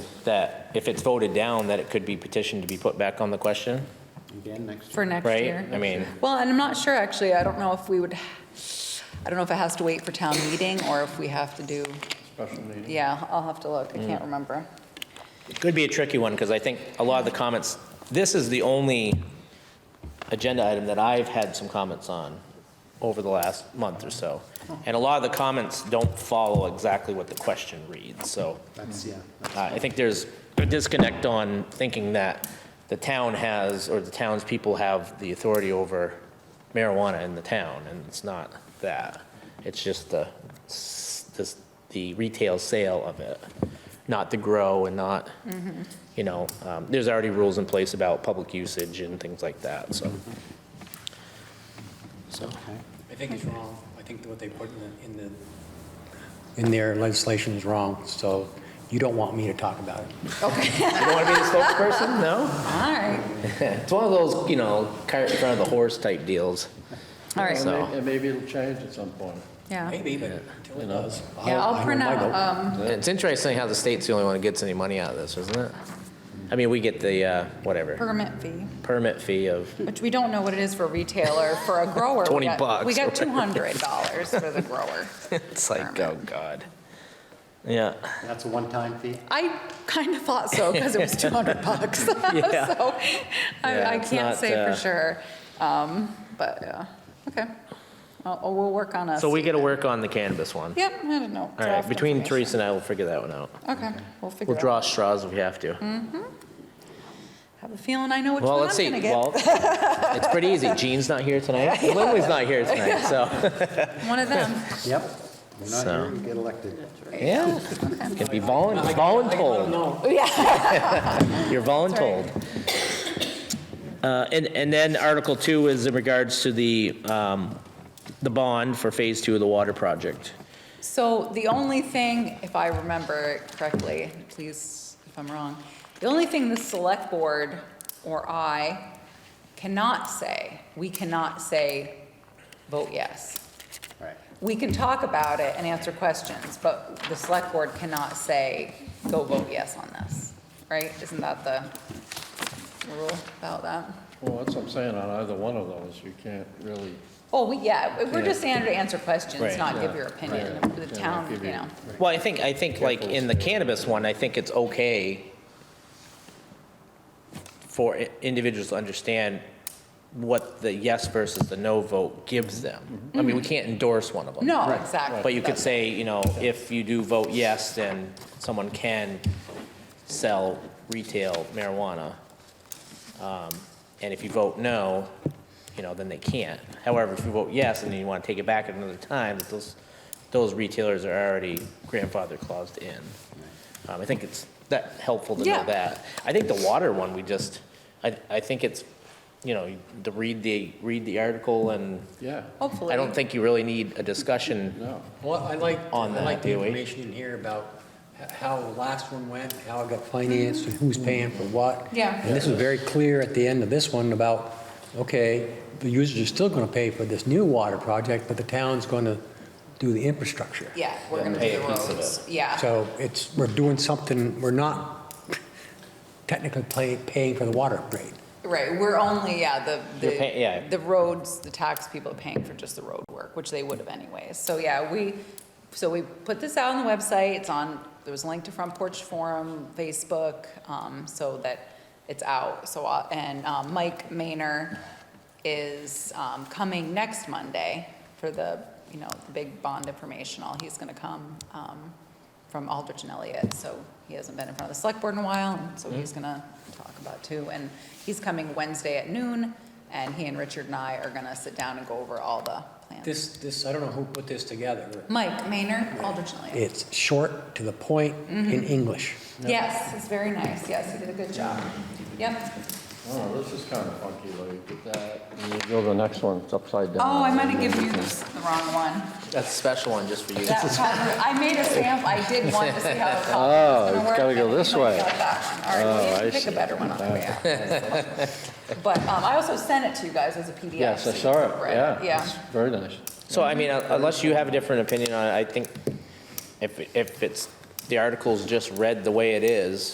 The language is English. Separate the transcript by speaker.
Speaker 1: that if it's voted down, that it could be petitioned to be put back on the question,
Speaker 2: Again, next.
Speaker 3: for next
Speaker 1: right?
Speaker 3: year.
Speaker 1: I mean,
Speaker 3: Well, and I'm not sure, actually, I don't know if we would, I don't know if it has to wait for town meeting or if we have to do,
Speaker 2: Special meeting.
Speaker 3: yeah, I'll have to look, I
Speaker 1: Mm.
Speaker 3: can't remember.
Speaker 1: it could be a tricky one, because I think a lot of the comments, this is the only agenda item that I've had some comments on over the last month or so.
Speaker 3: Oh.
Speaker 1: And a lot of the comments don't follow exactly what the question reads, so.
Speaker 2: That's, yeah. that's-
Speaker 1: Uh, I think there's a disconnect on thinking that the town has, or the townspeople have the authority over marijuana in the town, and it's not that. It's just the, s- this- the retail sale of it, not to grow and not, you know, um, there's already rules in place about public usage and things like that, so. So,
Speaker 2: Okay.
Speaker 4: I think it's wrong. I think what they put in the, in the, in their legislation is wrong, so you don't want me to talk about it.
Speaker 3: Okay,
Speaker 1: you don't want to be the spokesperson? No?
Speaker 3: all right,
Speaker 1: It's one of those, you know, cart in front of the horse type deals.
Speaker 3: all right,
Speaker 1: So-
Speaker 5: And maybe it'll change at some point.
Speaker 3: yeah.
Speaker 4: Maybe, but until it does.
Speaker 3: Yeah,
Speaker 4: I
Speaker 3: I'll
Speaker 4: will
Speaker 3: print
Speaker 4: my vote.
Speaker 3: out, um,
Speaker 1: It's interesting how the state's the only one that gets any money out of this, isn't it? I mean, we get the, uh, whatever,
Speaker 3: permit fee,
Speaker 1: permit fee of,
Speaker 3: which we don't know what it is for a retailer, for a grower. we
Speaker 1: 20
Speaker 3: got-
Speaker 1: bucks,
Speaker 3: We got
Speaker 1: right?
Speaker 3: $200 for the grower.
Speaker 1: it's like, oh, God. Yeah.
Speaker 2: That's a one-time fee?
Speaker 3: I kind of thought so because it was 200 bucks. So
Speaker 1: Yeah.
Speaker 3: I
Speaker 1: Yeah,
Speaker 3: I
Speaker 1: it's
Speaker 3: can't
Speaker 1: not,
Speaker 3: say
Speaker 1: uh,
Speaker 3: for sure. Um, But, yeah, okay. I'll- I'll- We'll work on us.
Speaker 1: So we got to work on the cannabis one.
Speaker 3: Yep, I don't know.
Speaker 1: All right,
Speaker 3: draft
Speaker 1: between
Speaker 3: information.
Speaker 1: Teresa and I, we'll figure that one out.
Speaker 3: Okay, we'll figure
Speaker 1: We'll
Speaker 3: it out.
Speaker 1: draw straws if we have to.
Speaker 3: Have a feeling I know Hmm. which
Speaker 1: Well,
Speaker 3: one I'm
Speaker 1: let's see,
Speaker 3: going to get.
Speaker 1: well, it's pretty easy. Jean's not here tonight. Lily's not here tonight, so,
Speaker 3: One of them.
Speaker 2: Yep. You're not
Speaker 1: So-
Speaker 2: here, you get elected.
Speaker 1: yeah. Can be volun, voluntold.
Speaker 4: No,
Speaker 1: You're voluntold. Uh, And, and then Article 2 is in regards to the, um, the bond for Phase 2 of the water project.
Speaker 3: So the only thing, if I remember correctly, please if I'm wrong, the only thing the select board or I cannot say, we cannot say, vote yes.
Speaker 2: Right.
Speaker 3: We can talk about it and answer questions, but the select board cannot say, go vote yes on this, right? Isn't that the rule about that?
Speaker 5: Well, that's what I'm saying, on either one of those, you can't really.
Speaker 3: Oh, we, yeah, we're just here to answer
Speaker 1: Right.
Speaker 3: questions, not give your opinion,
Speaker 5: Right.
Speaker 3: the
Speaker 5: Yeah,
Speaker 3: town,
Speaker 5: give
Speaker 3: you
Speaker 5: you-
Speaker 3: know.
Speaker 1: Well, I think, I think like in the cannabis one, I think it's okay for i- individuals to understand what the yes versus the no vote gives them. I mean, we can't endorse one of them.
Speaker 3: No, exactly.
Speaker 1: But you could
Speaker 3: that's-
Speaker 1: say, you know, if you do vote yes, then someone can sell retail marijuana. Um, And if you vote no, you know, then they can't. However, if you vote yes and then you want to take it back at another time, that those, those retailers are already grandfather claused in. Um, I think it's that helpful to know
Speaker 3: Yeah.
Speaker 1: that. I think the water one, we just, I, I think it's, you know, to read the, read the article and
Speaker 5: Yeah,
Speaker 3: Hopefully.
Speaker 1: I don't think you really need a discussion.
Speaker 5: no.
Speaker 4: well, I like, I
Speaker 1: On that,
Speaker 4: like the
Speaker 1: do we?
Speaker 4: information in here about h- how the last one went, how it got financed, and who's paying for what.
Speaker 3: Yeah.
Speaker 4: And this is very clear at the end of this one about, okay, the users are still going to pay for this new water project, but the town's going to do the infrastructure.
Speaker 3: Yeah, we're gonna
Speaker 1: pay
Speaker 3: do the
Speaker 1: a piece of
Speaker 3: roads, yeah.
Speaker 4: So it's, we're doing something, we're not technically pay- paying for the water upgrade.
Speaker 3: Right, we're only, yeah, the,
Speaker 1: You're pay- yeah.
Speaker 3: the, the roads, the tax people are paying for just the road work, which they would have anyways. So, yeah, we, so we put this out on the website, it's on, there was a link to Front Porch Forum, Facebook, um, so that it's out. So, uh, and, um, Mike Maynor is, um, coming next Monday for the, you know, the big bond informational. He's gonna come, um, from Aldrich and Elliott, so he hasn't been in front of the select board in a while, and so he's gonna talk about too. And he's coming Wednesday at noon, and he and Richard and I are gonna sit down and go over all the plans.
Speaker 4: This, this, I don't know who put this together.
Speaker 3: Mike Maynor, Aldrich and Elliott.
Speaker 4: It's short, to the point,
Speaker 3: Mm-hmm.
Speaker 4: in English.
Speaker 3: Yes, it's very nice, yes, he did a good job. Yep.
Speaker 5: Oh, this is kind of funky, like, you get that, and you go to the next one, it's upside down.
Speaker 3: Oh, I might have given you this- the wrong one.
Speaker 1: That's a special one just for you.
Speaker 3: That cover- I made a sample, I did want to see how the copy
Speaker 5: Oh,
Speaker 3: was gonna
Speaker 5: it's
Speaker 3: work.
Speaker 5: gotta go
Speaker 3: I think
Speaker 5: this
Speaker 3: I
Speaker 5: way.
Speaker 3: got that one. All
Speaker 5: Oh,
Speaker 3: right,
Speaker 5: I
Speaker 3: we need to pick
Speaker 5: see.
Speaker 3: a better one on the way out. But um, I also sent it to you guys as a PDF.
Speaker 5: Yes, I
Speaker 3: so you
Speaker 5: saw
Speaker 3: can
Speaker 5: it,
Speaker 3: read
Speaker 5: yeah.
Speaker 3: Yeah.
Speaker 5: it's Very nice.
Speaker 1: So I mean, uh, unless you have a different opinion on it, I think if, if it's, the article's just read the way it is,